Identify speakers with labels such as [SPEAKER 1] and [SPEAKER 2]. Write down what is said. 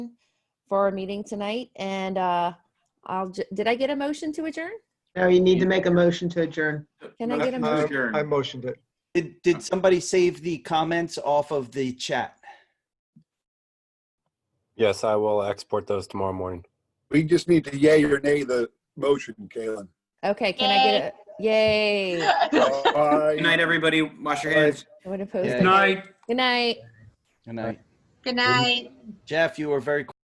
[SPEAKER 1] for our meeting tonight. And uh, I'll, ju- did I get a motion to adjourn?
[SPEAKER 2] No, you need to make a motion to adjourn.
[SPEAKER 1] Can I get a
[SPEAKER 3] Uh,
[SPEAKER 1] motion?
[SPEAKER 3] adjourn.
[SPEAKER 4] I motioned it.
[SPEAKER 5] Did, did somebody save the comments off of the chat?
[SPEAKER 6] Yes, I will export those tomorrow morning.
[SPEAKER 7] We just need to yay or nay the motion, Kalen.
[SPEAKER 1] Okay, can I get a, yay.
[SPEAKER 3] Good night, everybody. Wash your hands.
[SPEAKER 1] I would oppose
[SPEAKER 5] Yeah.
[SPEAKER 1] it.
[SPEAKER 5] Good
[SPEAKER 1] Good night.
[SPEAKER 5] And I,
[SPEAKER 8] Good night.
[SPEAKER 5] Jeff, you were very